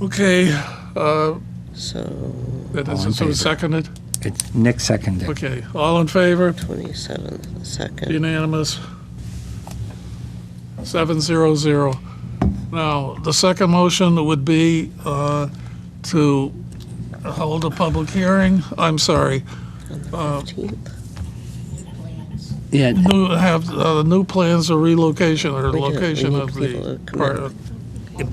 Okay, uh, So that All is, in so favor. seconded? It's Nick seconded. Okay, all in favor? 27th, second. Unanimous. Seven zero zero. Now, the second motion would be uh, to hold a public hearing, I'm sorry, 15th. Yeah, new, have, uh, new plans of relocation or We do- we location need of people the, to come or,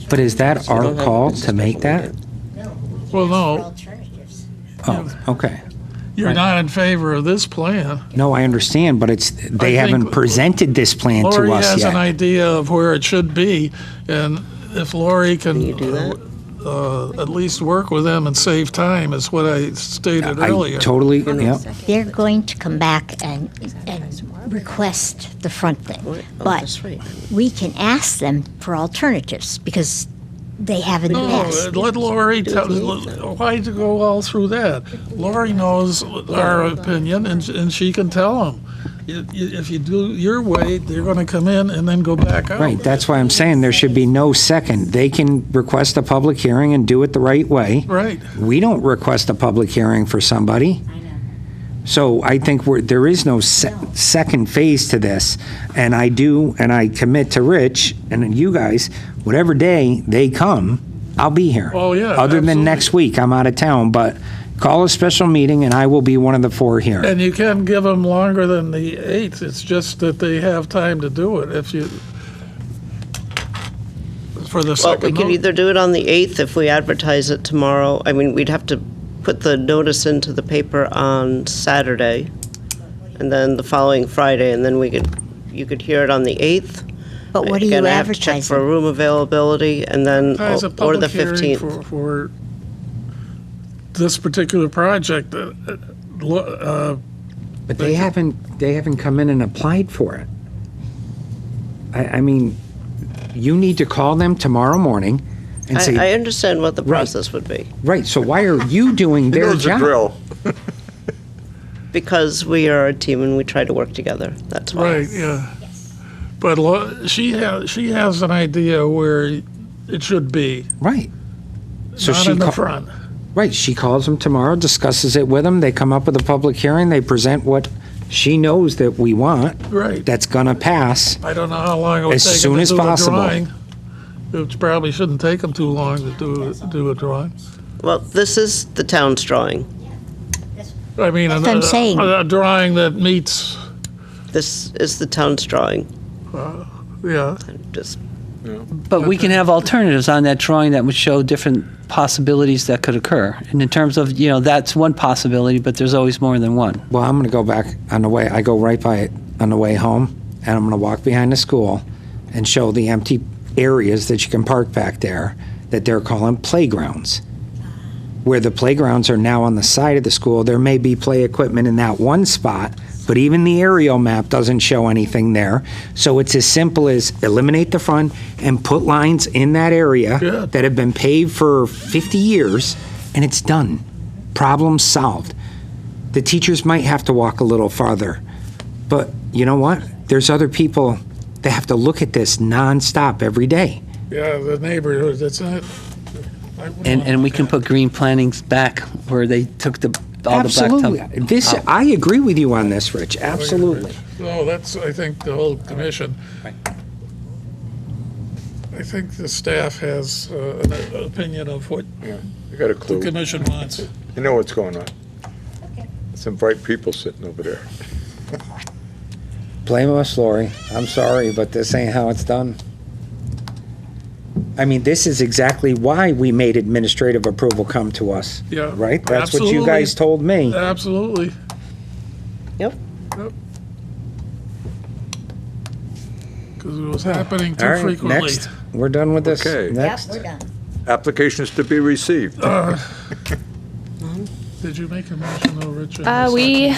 but is that We our don't have call this to make special that? meeting. well, no, alternatives. Oh, okay. you're not in favor of this plan. No, I understand, but it's, they I think haven't presented this plan Lori to us has an yet. idea of where it should be, and if Lori Can you can do that? uh, at least work with them and save time, is what I stated I earlier. totally, yeah, They're going to come back and, and request the front What? thing. Oh, But that's right. we can ask them for alternatives because they haven't No, uh, asked. Oh, let Lori tell, the- why to go all through that? Lori knows our opinion, and, and she can tell them. If you do your way, they're gonna come in and then go back out. right. That's why I'm saying there should be no second. They can request a public hearing and do it the right way. Right, We don't request a public hearing for somebody. So I think we're, there is no se- second phase to this. And I do, and I commit to Rich and then you guys, whatever day they come, I'll be here. Oh, yeah, Other than absolutely. next week, I'm out of town, but call a special meeting and I will be one of the four here. and you can give them longer than the eighth, it's just that they have time to do it if you, for the Well, second. we could note. either do it on the 8th if we advertise it tomorrow. I mean, we'd have to put the notice into the paper on Saturday, and then the following Friday, and then we could, you could hear it on the 8th. But what are Again, you I have to check for advertising? room availability, and then, As a or the public hearing 15th. for, for this particular project, uh, uh, lo- uh, But they haven't, they haven't come in and applied for it. I, I mean, you need to call them tomorrow morning and say, I, I understand what the Right. process would be, Right, so why are you doing He their knows the job? drill. because we are a team and we try to work together, that's why. right, yeah. But lo- she has, she has an idea where it should be, Right. So not she in the ca- front. Right, she calls them tomorrow, discusses it with them, they come up with a public hearing, they present what she knows that we want, Right. that's gonna pass. I don't know how long it would As take 'em soon to as do a possible. drawing. It probably shouldn't take them too long to do, do a drawing. Well, this is the town's drawing, I mean, That's what I'm a- saying. A a drawing that meets, this is the town's drawing, yeah, just But we can have alternatives on that drawing that would show different possibilities that could occur. And in terms of, you know, that's one possibility, but there's always more than one. Well, I'm gonna go back on the way, I go right by it on the way home, and I'm gonna walk behind the school and show the empty areas that you can park back there, that they're calling playgrounds. Where the playgrounds are now on the side of the school, there may be play equipment in that one spot, but even the aerial map doesn't show anything there. So it's as simple as eliminate the front and put lines in that area Yeah. that have been paved for 50 years, and it's done. Problem solved the teachers might have to walk a little farther. But you know what? There's other people that have to look at this nonstop every day. yeah, the neighborhood, that's not. I wouldn't And, want and we can put green plantings back where they took the, all the Absolutely. blacktop. This, out. I agree with you on this, Rich. Absolutely. No, that's, I think, the whole commission. I think the staff has uh, an opinion of what I got a the clue. commission wants. You know what's going on. Some bright people sitting over there. Blame us, Lori. I'm sorry, but this ain't how it's done. I mean, this is exactly why we made administrative approval come to us, Yeah. right? That's what you Absolutely. guys told me. Absolutely. Yep. Yep. Because it was happening All too right, frequently. next. We're done with this. Okay. Next. we're done. Applications to be received. Did you make a motion though, Richard? Uh, we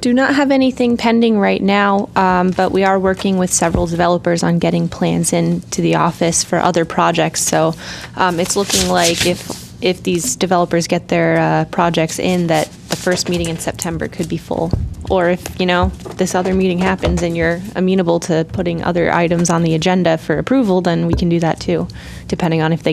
do not have anything pending right now, um, but we are working with several developers on getting plans into the office for other projects. So um, it's looking like if if these developers get their uh, projects in, that the first meeting in September could be full. Or if you know this other meeting happens and you're amenable to putting other items on the agenda for approval, then we can do that too, depending on if they